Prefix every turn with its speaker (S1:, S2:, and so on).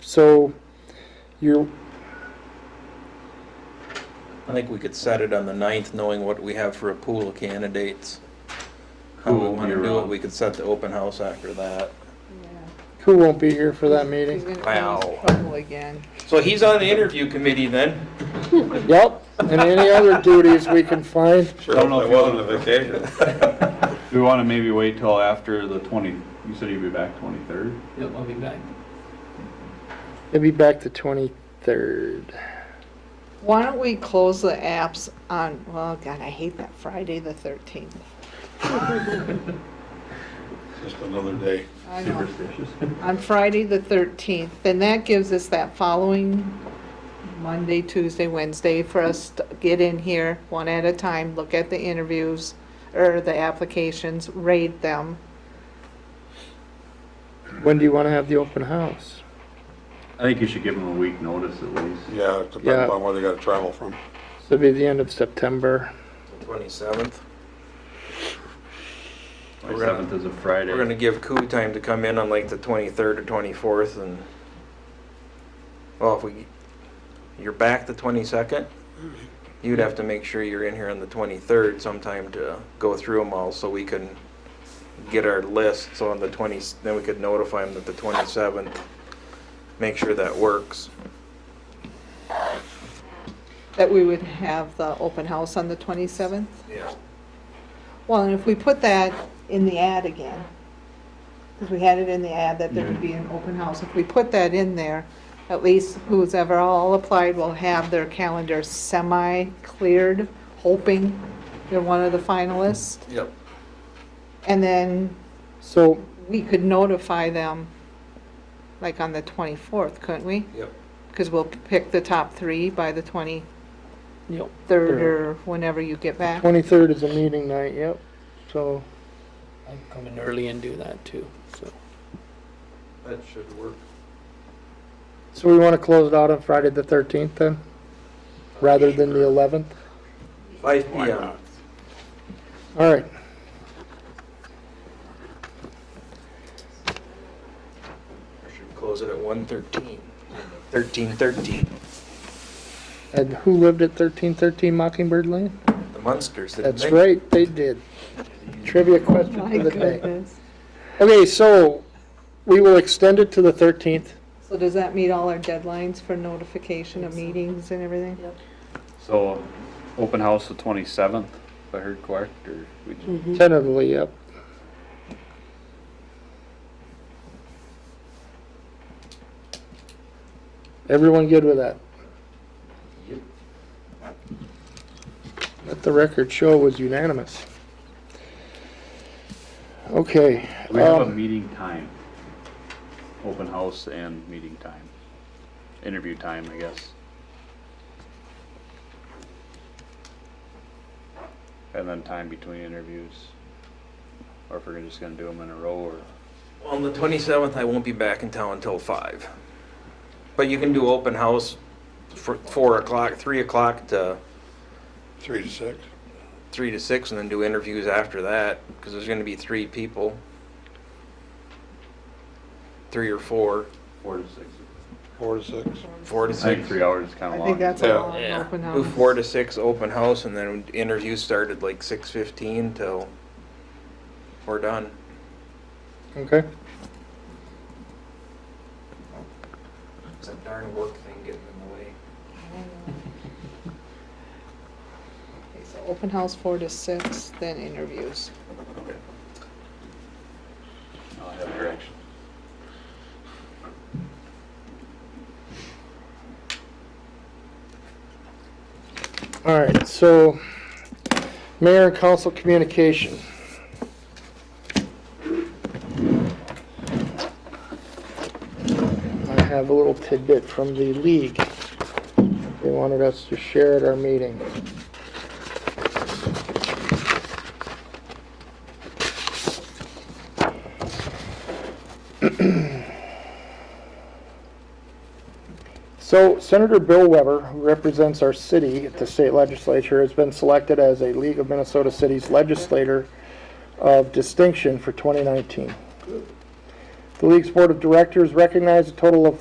S1: so you're,
S2: I think we could set it on the ninth, knowing what we have for a pool of candidates. How we
S3: Who will
S2: wanna
S3: be
S2: do it,
S3: around?
S2: we could set the open house after that.
S1: who won't be here for that meeting?
S4: He's gonna
S2: Wow.
S4: get in trouble again.
S2: So he's on the interview committee then?
S1: Yep, and any other duties we can find.
S5: Sure,
S3: Don't know
S5: it
S3: if you-
S5: wasn't a vacation.
S3: Do we want to maybe wait till after the 20, you said you'd be back 23rd?
S6: Yep, I'll be back.
S1: It'll be back the 23rd.
S4: Why don't we close the apps on, well, God, I hate that Friday, the thirteenth.
S5: Just another day.
S4: I know.
S3: Superstitious.
S4: On Friday, the thirteenth, then that gives us that following Monday, Tuesday, Wednesday for us to get in here one at a time, look at the interviews or the applications, rate them.
S1: When do you want to have the open house?
S3: I think you should give them a week notice at least.
S5: Yeah, it
S1: Yeah.
S5: depends on where they gotta travel from.
S1: So it'll be the end of September.
S2: Twenty-seventh. We're gonna-
S3: 27th is a Friday.
S2: We're gonna give Koo time to come in on like the twenty-third or twenty-fourth and, well, if we, you're back the twenty-second? You'd have to make sure you're in here on the twenty-third sometime to go through them all so we can get our list. So on the twenty, then we could notify them that the twenty-seventh, make sure that works.
S4: That we would have the open house on the twenty-seventh.
S2: Yeah.
S4: Well, and if we put that in the ad again, because we had it in the ad that there would be an open house, if we put that in there, at least who's ever all applied will have their calendar semi-cleared, hoping they're one of the finalists.
S2: Yep.
S4: And then
S1: So
S4: we could notify them, like on the 24th, couldn't we?
S2: Yep.
S4: Because we'll pick the top three by the 23rd
S1: Yep.
S4: or whenever you get
S1: the
S4: back.
S1: 23rd is a meeting night, yep. So
S6: I can come in early and do that too, so.
S2: That should work.
S1: so we want to close it out on Friday the 13th then? Rather than the 11th?
S2: Five
S5: Why
S2: PM.
S5: not?
S1: All right.
S2: I should close it at one thirteen. Thirteen thirteen.
S1: And who lived at 1313 Mockingbird Lane?
S2: The Munsters, didn't
S1: That's
S2: they?
S1: right, they did. Trivia question
S4: Oh My
S1: for the day.
S4: goodness.
S1: Okay, so we will extend it to the 13th.
S4: So does that meet all our deadlines for notification of meetings and everything?
S3: So, open house the 27th, if I heard correct, or we just
S4: Mm-hmm.
S1: Tentatively, yep. Everyone good with that?
S2: Yep.
S1: Let the record show it was unanimous. Okay.
S3: We have a
S1: um,
S3: meeting time, open house and meeting time, interview time, I guess. And then time between interviews, or if we're just gonna do them in a row, or,
S2: On the 27th, I won't be back in town until 5. But you can do open house for 4 o'clock, 3 o'clock to
S5: Three to six.
S2: 3 to 6, and then do interviews after that, because there's going to be three people. Three or four,
S3: four to six.
S5: Four to six.
S2: four to
S3: I think
S2: 6.
S3: three hours is kinda
S4: I
S3: long.
S4: think that's
S5: Yeah.
S4: a long
S6: Yeah.
S4: open
S2: Do
S4: house.
S2: 4 to 6 open house, and then interviews started like 6:15 till we're done.
S1: Okay.
S2: It's a darn work thing getting in the way.
S4: Okay, so Open house four to six, then interviews.
S3: I'll have direction.
S1: All right, so mayor and council communication. I have a little tidbit from the league. They wanted us to share at our meeting. So Senator Bill Weber, who represents our city at the state legislature, has been selected as a League of Minnesota Cities Legislator of Distinction for 2019. The league's board of directors recognized a total of